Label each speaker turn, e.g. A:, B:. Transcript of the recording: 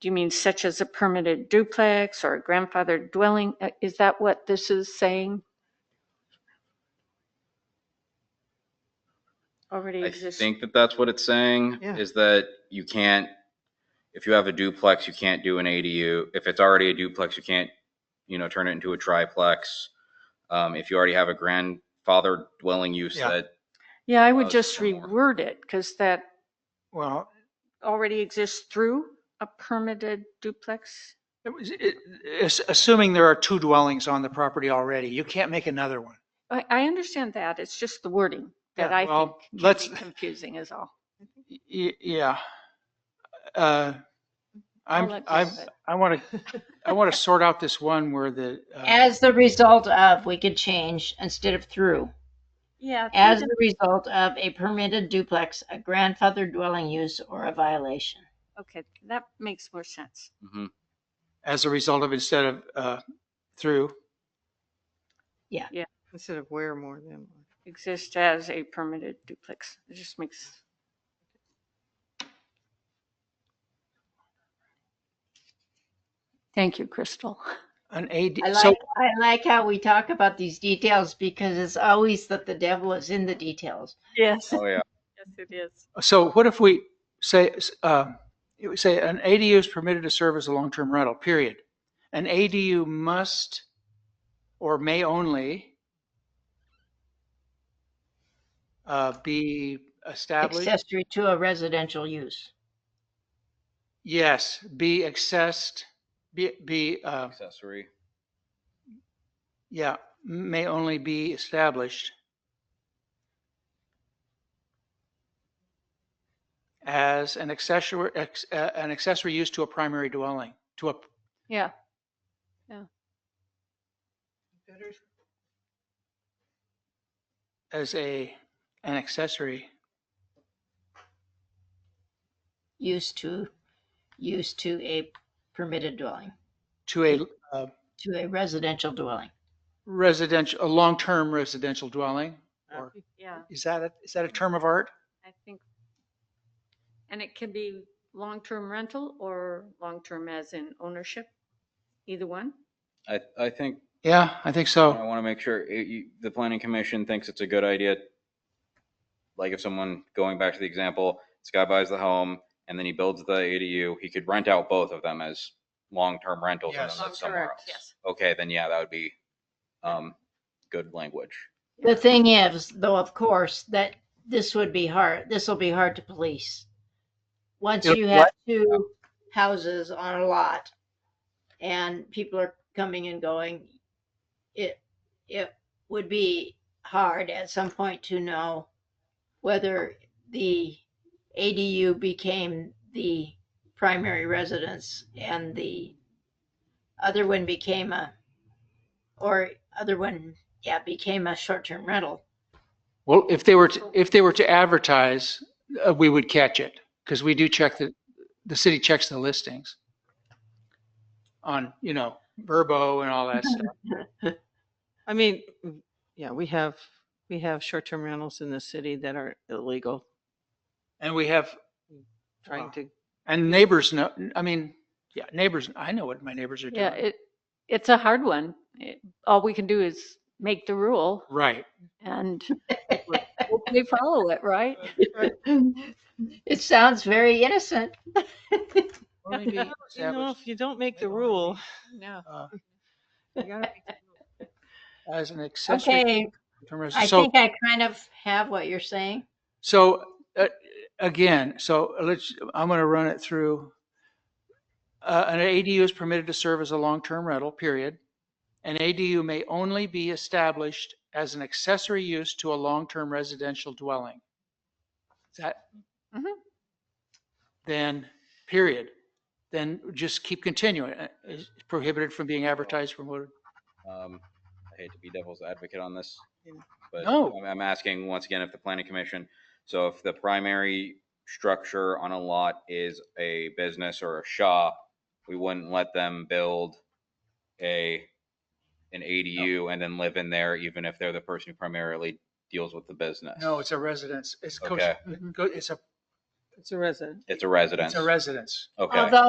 A: Do you mean such as a permitted duplex or a grandfathered dwelling? Uh, Is that what this is saying? Already
B: I
A: existing?
B: think that that's what it's saying,
C: Yeah.
B: is that you can't, if you have a duplex, you can't do an ADU. If it's already a duplex, you can't, you know, turn it into a triplex. Um, if you already have a grandfather dwelling use
C: Yeah.
B: that,
A: Yeah, I
B: Uh,
A: would just
B: some more.
A: reword it because that
C: Well,
A: already exists through a permitted duplex.
C: it was- it- it's assuming there are two dwellings on the property already, you can't make another one.
A: I, I understand that. It's just the wording that
C: Yeah,
A: I
C: well,
A: think
C: let's-
A: can be confusing is all.
C: Y- Yeah. Uh,
A: I'll
C: I'm,
A: let
C: I'm,
A: Jeff-
C: I want to, I want to sort out this one where the, uh,
D: As the result of, we could change instead of through.
A: Yeah.
D: As the result of a permitted duplex, a grandfathered dwelling use, or a violation.
A: Okay, that makes more sense.
B: mhm.
C: as a result of instead of, uh, through.
E: Instead of where more than.
A: Exist as a permitted duplex. It just makes, thank you, Crystal.
C: An AD,
D: I
C: so,
D: like, I like how we talk about these details because it's always that the devil is in the details.
A: Yes.
B: oh yeah,
A: Yes, it is.
C: so what if we say, uh, it would say an ADU is permitted to serve as a long-term rental, period. An ADU must or may only uh, be established.
D: Accessory to a residential use.
C: Yes, be accessed, be, be, uh,
B: accessory.
C: yeah, may only be established as an accessory, ex- uh, an accessory use to a primary dwelling, to a,
A: Yeah,
C: as a, an accessory.
D: Use to, use to a permitted dwelling,
C: to a uh,
D: to a residential dwelling.
C: residential, a long-term residential dwelling? Or
A: Uh, yeah,
C: is that, a- is that a term of art?
A: I think. And it can be long-term rental or long-term as in ownership, either one.
B: I, I think,
C: Yeah, I think
B: I
C: so.
B: want to make sure, it- you- the planning commission thinks it's a good idea. Like if someone, going back to the example, this guy buys the home and then he builds the ADU, he could rent out both of them as long-term rentals and
C: Yes.
B: then live somewhere else.
A: Correct, Yes.
B: okay, then yeah, that would be um, good language.
D: The thing is, though, of course, that this would be hard, this will be hard to police. Once
C: It'll
D: you
C: be
D: have two houses on a lot and people are coming and going, it, it would be hard at some point to know whether the ADU became the primary residence and the other one became a, or other one yeah, became a short-term rental.
C: Well, if they were, to-
D: Oh.
C: if they were to advertise, uh, we would catch it because we do check the, the city checks the listings on, you know, Verbo and all that
D: Mm-hmm.
C: stuff.
E: I mean, w- yeah, we have, we have short-term rentals in the city that are illegal,
C: And we have, Wow.
E: trying to,
C: and neighbors know, I mean, yeah, neighbors, I know what my neighbors are
A: Yeah,
C: doing.
A: it, it's a hard one. It- All we can do is make the rule
C: Right.
A: and hopefully follow it, right?
D: it sounds very innocent.
C: Or maybe
E: you know,
C: established
E: if you don't make
C: They
E: the
C: don't
E: rule.
A: No.
C: uh,
E: you gotta make the rule.
C: As an accessory.
D: Okay,
C: term of-
D: I
C: so-
D: think I kind of have what you're saying.
C: So uh, again, so let's, I'm going to run it through. Uh, An ADU is permitted to serve as a long-term rental, period. An ADU may only be established as an accessory use to a long-term residential dwelling. Is that?
A: Mhm.
C: Then, period. Then just keep continuing. Uh, is Prohibited from being advertised, promoted.
B: Um, I hate to be devil's advocate on this,
E: Yeah.
B: but
C: No.
B: I'm, I'm asking once again if the planning commission, so if the primary structure on a lot is a business or a shop, we wouldn't let them build a, an ADU and then live in there, even if they're the person who primarily deals with the business.
C: No, it's a residence. It's, co-
B: Okay.
C: go- it's a,
E: It's a resident.
B: It's a
C: it's
B: residence.
C: a residence.
B: Okay.
D: Although